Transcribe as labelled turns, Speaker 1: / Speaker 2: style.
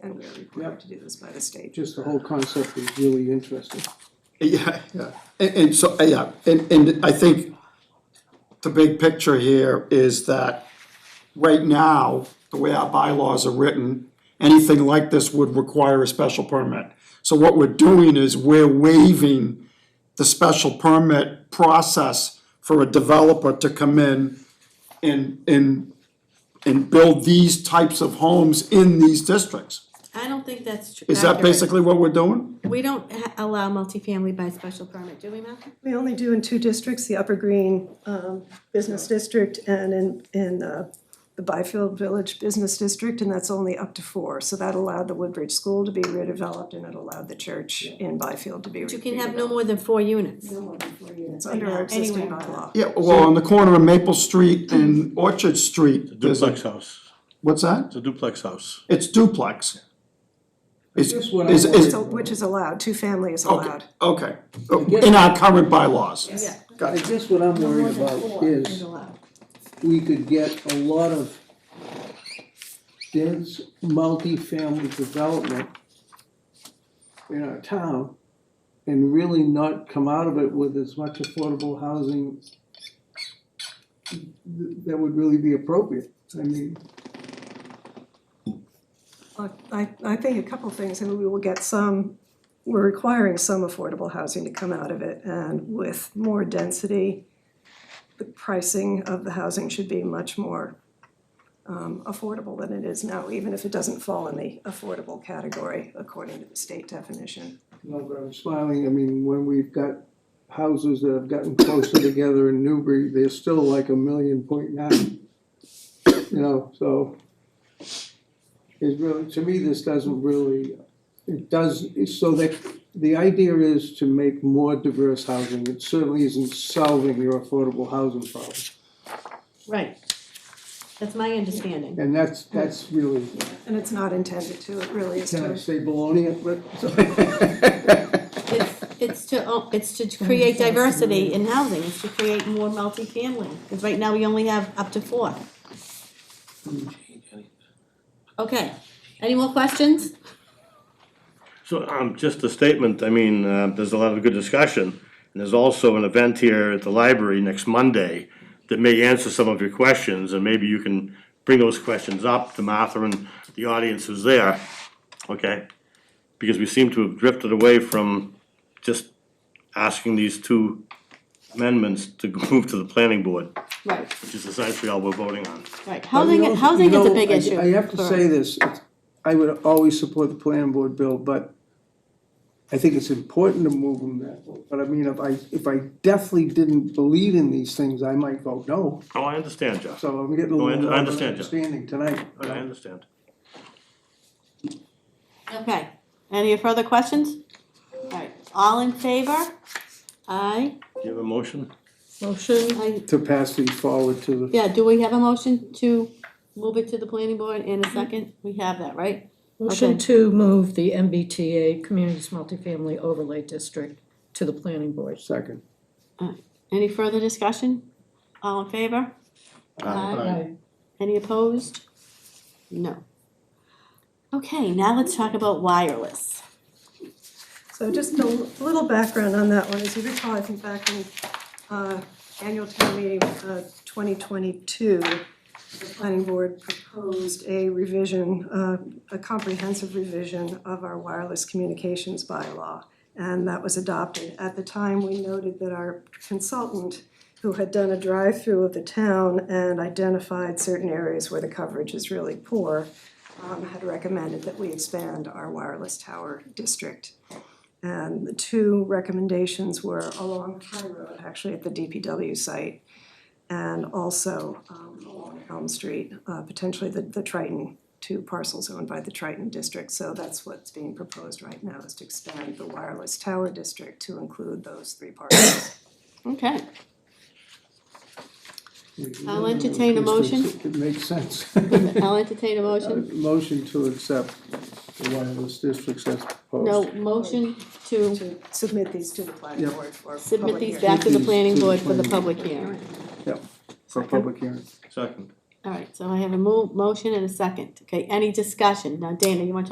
Speaker 1: and we are
Speaker 2: Yeah.
Speaker 1: required to do this by the state.
Speaker 2: Just the whole concept is really interesting.
Speaker 3: Yeah, yeah, and, and so, uh, yeah, and, and I think the big picture here is that right now, the way our bylaws are written, anything like this would require a special permit. So what we're doing is we're waiving the special permit process for a developer to come in and, and, and build these types of homes in these districts.
Speaker 4: I don't think that's true.
Speaker 3: Is that basically what we're doing?
Speaker 4: We don't ha- allow multifamily by special permit, do we, Malcolm?
Speaker 5: We only do in two districts, the Upper Green um, Business District and in, in uh, the Byfield Village Business District, and that's only up to four. So that allowed the Woodbridge School to be redeveloped, and it allowed the church in Byfield to be
Speaker 4: But
Speaker 5: redeveloped.
Speaker 4: you can have no more than four units.
Speaker 5: It's under our existing bylaw.
Speaker 3: Yeah, well, on the corner of Maple Street and Orchard Street, there's a,
Speaker 6: Duplex house,
Speaker 3: what's that?
Speaker 6: it's a duplex house.
Speaker 3: It's duplex. Is,
Speaker 2: That's what I
Speaker 3: is, is,
Speaker 5: So- Which is allowed, two family is
Speaker 3: okay,
Speaker 5: allowed.
Speaker 3: okay, in our current bylaws.
Speaker 4: Yeah.
Speaker 2: I guess what I'm worried about is we could get a lot of dense multifamily development in our town and really not come out of it with as much affordable housing th- that would really be appropriate. I mean,
Speaker 5: Look, I, I think a couple things, and we will get some, we're requiring some affordable housing to come out of it, and with more density, the pricing of the housing should be much more um, affordable than it is now, even if it doesn't fall in the affordable category according to the state definition.
Speaker 2: no, but I'm smiling, I mean, when we've got houses that have gotten closer together in Newbury, they're still like a million point nine. You know, so it's really, to me, this doesn't really, it does, so that, the idea is to make more diverse housing. It certainly isn't solving your affordable housing problem.
Speaker 4: Right. That's my understanding.
Speaker 2: And that's, that's really,
Speaker 5: And it's not intended to, it really is
Speaker 2: can I
Speaker 5: to,
Speaker 2: say baloney?
Speaker 4: It's, it's to, o- it's to create diversity in housing, it's to create more multifamily, because right now we only have up to four. Okay, any more questions?
Speaker 6: So, um, just a statement, I mean, uh, there's a lot of good discussion, and there's also an event here at the library next Monday that may answer some of your questions, and maybe you can bring those questions up to Martha and the audience who's there, okay? Because we seem to have drifted away from just asking these two amendments to move to the planning board,
Speaker 4: Right,
Speaker 6: which is essentially all we're voting on.
Speaker 4: right,
Speaker 2: You
Speaker 4: housing,
Speaker 2: know-
Speaker 4: housing
Speaker 2: you
Speaker 4: is a
Speaker 2: know,
Speaker 4: big
Speaker 2: I-
Speaker 4: issue.
Speaker 2: I have to
Speaker 4: for
Speaker 2: say
Speaker 4: us.
Speaker 2: this, it's- I would always support the planning board bill, but I think it's important to move them that way. But I mean, if I, if I definitely didn't believe in these things, I might vote no.
Speaker 6: Oh, I understand, Jeff,
Speaker 2: So I'm getting a
Speaker 6: No, Oh, I
Speaker 2: little
Speaker 6: under- I
Speaker 2: more
Speaker 6: understand, Jeff.
Speaker 2: understanding tonight.
Speaker 6: I understand.
Speaker 4: Okay, any further questions? Alright, all in favor? Aye,
Speaker 6: Do you have a motion?
Speaker 4: motion, I,
Speaker 2: To pass these forward to the,
Speaker 4: yeah, do we have a motion to move it to the planning board in a second? We have that, right? Okay.
Speaker 7: Motion to move the MBTA Communities Multifamily Overlay District to the planning board.
Speaker 2: second.
Speaker 4: Any further discussion? All in favor?
Speaker 7: Aye.
Speaker 4: Any opposed? No. Okay, now let's talk about wireless.
Speaker 5: so just a little background on that one, as you recall, I think back in uh, annual town meeting, uh, twenty twenty-two, the planning board proposed a revision, uh, a comprehensive revision of our wireless communications bylaw, and that was adopted. At the time, we noted that our consultant, who had done a drive-through of the town and identified certain areas where the coverage is really poor, um, had recommended that we expand our wireless tower district. And the two recommendations were along High Road, actually at the DPW site, and also um, along Elm Street, uh, potentially the, the Triton, two parcels owned by the Triton District. So that's what's being proposed right now, is to expand the wireless tower district to include those three parcels.
Speaker 4: Okay, I'll entertain a motion.
Speaker 2: It makes sense.
Speaker 4: I'll entertain a motion.
Speaker 2: Motion to accept the wireless districts as proposed.
Speaker 4: No, motion to
Speaker 5: To submit these to the planning
Speaker 2: Yep.
Speaker 5: board for
Speaker 4: submit
Speaker 5: public
Speaker 4: these
Speaker 5: hearing.
Speaker 4: back to the planning board for the public hearing.
Speaker 2: Yep, for public hearing.
Speaker 6: Second.
Speaker 4: All right, so I have a mo- motion and a second. Okay, any discussion? Now Dana, you wanna talk